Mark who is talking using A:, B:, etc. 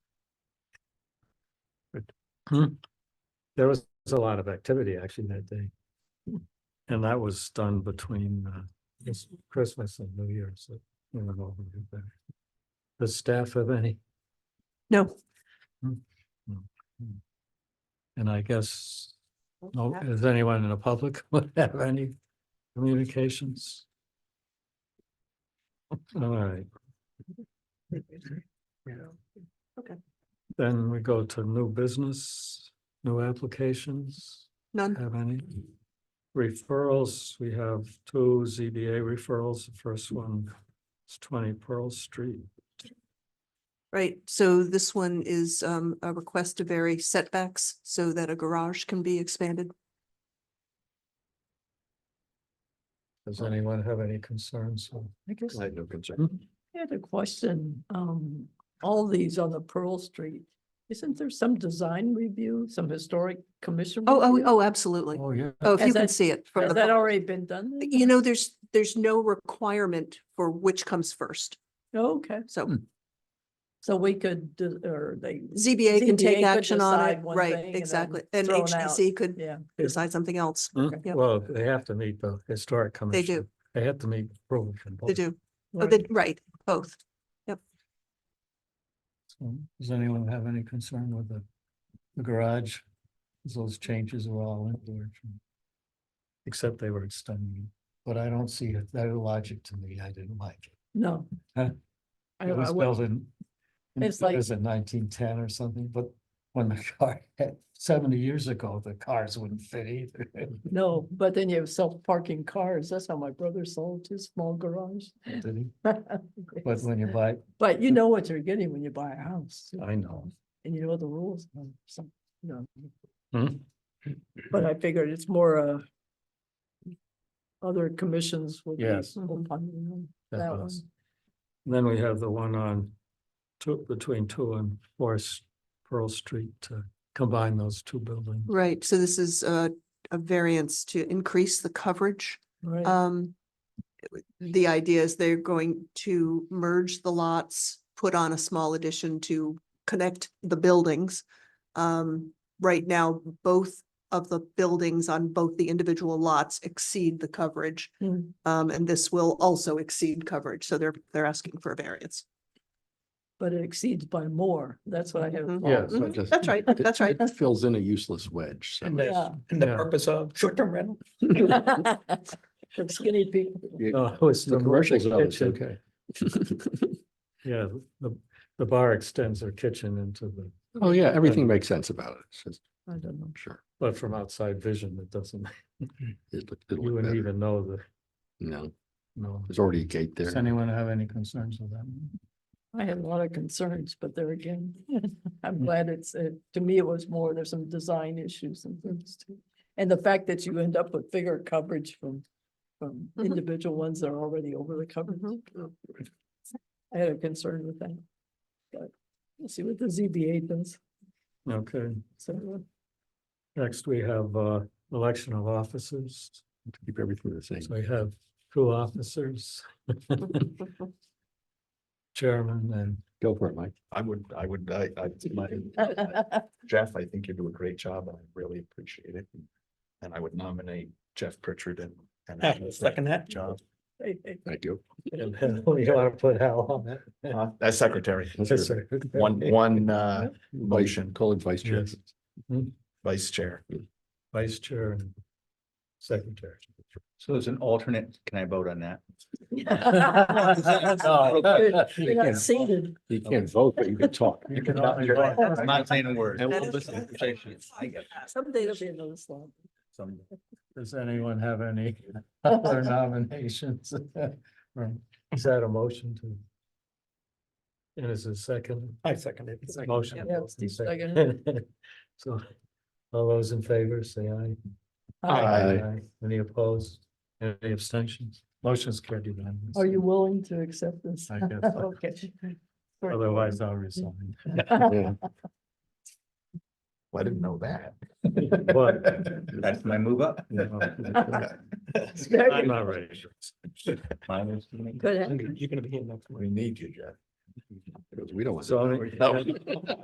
A: Hmm.
B: There was a lot of activity actually that day. And that was done between uh, Chris- Christmas and New Year's. so we went over it there. Does staff have any?
C: No.
B: Hmm. Hmm. And I guess, no,
C: Uh,
B: is anyone in the public would have any communications? All right.
C: Okay.
B: Then we go to new business, new applications.
C: None.
B: Have any? Referrals, we have two ZBA referrals. The first one is twenty Pearl Street.
C: Right, so this one is um a request to vary setbacks so that a garage can be expanded.
B: Does anyone have any concerns? Hmm?
D: I guess I
B: no concern.
D: had a question, um, all these on the Pearl Street, isn't there some design review, some historic commission?
C: Oh, oh,
D: review?
C: oh, absolutely.
B: Oh, yeah.
C: Oh, if
D: Has
C: you can
D: that-
C: see it from
D: Has that
C: the,
D: already been done? then?
C: you know, there's, there's no requirement for which comes first.
D: Oh, Okay,
C: So
B: Hmm.
D: so we could, do- or they,
C: ZBA can
D: ZBA
C: take
D: could
C: action on it,
D: decide one thing
C: right,
D: and then
C: exactly. And
D: throw it out.
C: HDC could
D: yeah,
C: decide something else.
B: Mm,
C: Yep.
B: Well, they have to meet the historic commission.
C: do.
B: They have to meet approval. from
C: They
B: both.
C: do, Oh,
D: right.
C: they- right, both.
B: So, Does anyone have any concern with the, the garage? 'Cause Those changes were all in direction. Except they were extending, but I don't see it, that logic to me, I didn't like it.
D: no.
B: Huh?
D: I-
B: It
D: I
B: was
D: would-
B: built in, in-
D: It's
B: it
D: like-
B: was in nineteen ten or something, but when the car, had- seventy years ago, the cars wouldn't fit either.
D: No, but then you have self-parking cars, that's how my brother sold his small garage.
B: Did he? But
D: Yes.
B: when you buy,
D: But you know what you're getting when you buy a house. too.
B: I know.
D: And you know the rules, um, some, you know.
B: Hmm.
D: But I figured it's more uh. Other commissions would be.
B: Yes.
D: upon
B: that
D: That
B: was-
D: one.
B: Then we have the one on two, between two and four S- Pearl Street to combine those two buildings.
C: Right, so this is a, a variance to increase the coverage.
D: Right,
C: Um, the idea is they're going to merge the lots, put on a small addition to connect the buildings. Um, right now, both of the buildings on both the individual lots exceed the coverage.
D: Mm.
C: Um, and this will also exceed coverage, so they're, they're asking for a variance.
D: but it exceeds by more, that's what I have.
C: Mhm.
E: Yeah,
D: thought.
E: so
C: Mhm,
E: just-
C: that's right,
E: it-
C: that's right.
E: It fills in a useless wedge. so-
F: And the,
D: Yeah.
F: and the
B: Yeah.
F: purpose of short-term rental.
D: For Skinny people,
B: No, Oh, it's
E: The
B: the
E: commercials of it's
B: kitchen.
E: okay.
B: Yeah, the, the bar extends their kitchen into the,
E: Oh, yeah, everything makes sense about it. It's just,
D: I don't know.
E: I'm sure.
B: but from outside vision, it doesn't,
E: It look- it'll
B: you
E: look
B: wouldn't
E: better.
B: even know the,
E: No,
B: no.
E: there's already a gate
B: Does
E: there.
B: anyone have any concerns with that?
D: I had a lot of concerns, but there again,
B: Mm.
D: I'm glad it's, uh, to me, it was more, there's some design issues and things too. And the fact that you end up with bigger coverage from, from
C: Mhm.
D: individual ones that are already over the coverage. I had a concern with that. But we'll see what the ZBA does,
B: Okay,
D: so.
B: next we have, uh, election of officers.
E: Keep everything the same.
B: So we have two officers, chairman and
E: Go for it, Mike.
F: I would, I would, I, I, my-
D: uh,
F: Jeff, I think you do a great job. I really appreciate it. And I would nominate Jeff Pritchard and. and Alan for
B: second
F: that job.
D: hey, hey,
E: Thank you.
B: And then we ought to put Al on that.
F: Uh, As secretary,
E: That's
B: Yes,
E: your
B: sir.
F: one, one, uh,
E: vice-
F: motion.
E: Call it vice chair.
B: Yes.
F: vice chair.
B: Vice chair and secretary.
G: So as an alternate, can I vote on that?
D: You're not seated.
E: You can't vote, but you can talk.
B: You can
G: Not-
B: always vote.
G: I'm not saying a word.
E: I
C: will listen to
D: Someday there'll be another slot.
B: Does anyone have any other nominations? Or Is that a motion to? And is it second?
F: I second it.
B: Motion.
D: Yeah, Steve
B: Second. So all those in favor, say aye.
E: Aye.
B: Any opposed? Any abstentions? Motion's carried unanimously.
D: Are you willing to accept this?
B: I guess.
D: Okay. Sorry.
B: Otherwise, I'll resign.
E: Yeah.
F: I didn't know that.
B: But
G: That's my move up.
D: It's very
B: I'm not ready.
D: Good.
F: You're gonna be here next. We need you, Jeff.
E: Because We don't want.
B: So.
E: No.